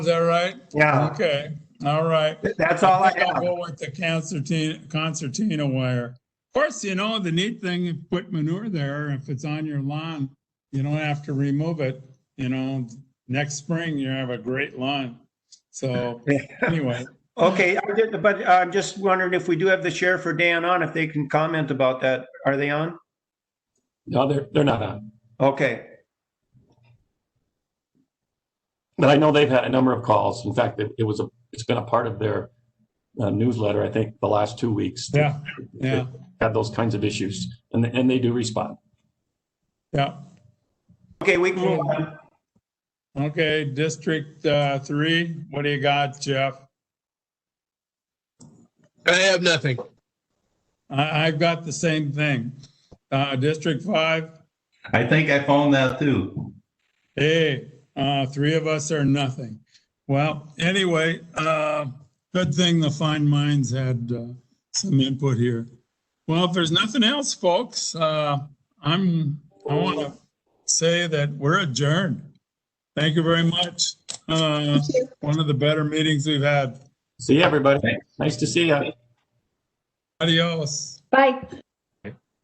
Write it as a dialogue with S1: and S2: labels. S1: Is that right?
S2: Yeah,
S1: Okay, all right.
S2: Uh, that's all I
S1: I'll
S2: have.
S1: go with the concertina, concertina wire. Of course, you know, the neat thing, put manure there, if it's on your lawn, you don't have to remove it, you know, next spring, you have a great lawn. So anyway,
S2: Okay, I did- but I'm just wondering if we do have the sheriff or Dan on, if they can comment about that. Are they on?
S3: No, they're, they're not on.
S2: Okay,
S3: But I know they've had a number of calls. In fact, it, it was a, it's been a part of their uh, newsletter, I think, the last two weeks.
S1: yeah, yeah,
S3: Had those kinds of issues and, and they do respond.
S1: yeah.
S2: okay, we can move on.
S1: Okay, District uh, Three, what do you got, Jeff?
S4: I have nothing.
S1: I, I've got the same thing. Uh, District Five,
S5: I think I found that too.
S1: Hey, uh, three of us are nothing. Well, anyway, uh, good thing the fine minds had, uh, some input here. Well, if there's nothing else, folks, uh, I'm, I want to say that we're adjourned. Thank you very much. Uh, one of the better meetings we've had.
S3: See you, everybody. Nice to see you.
S1: Adios.
S6: Bye.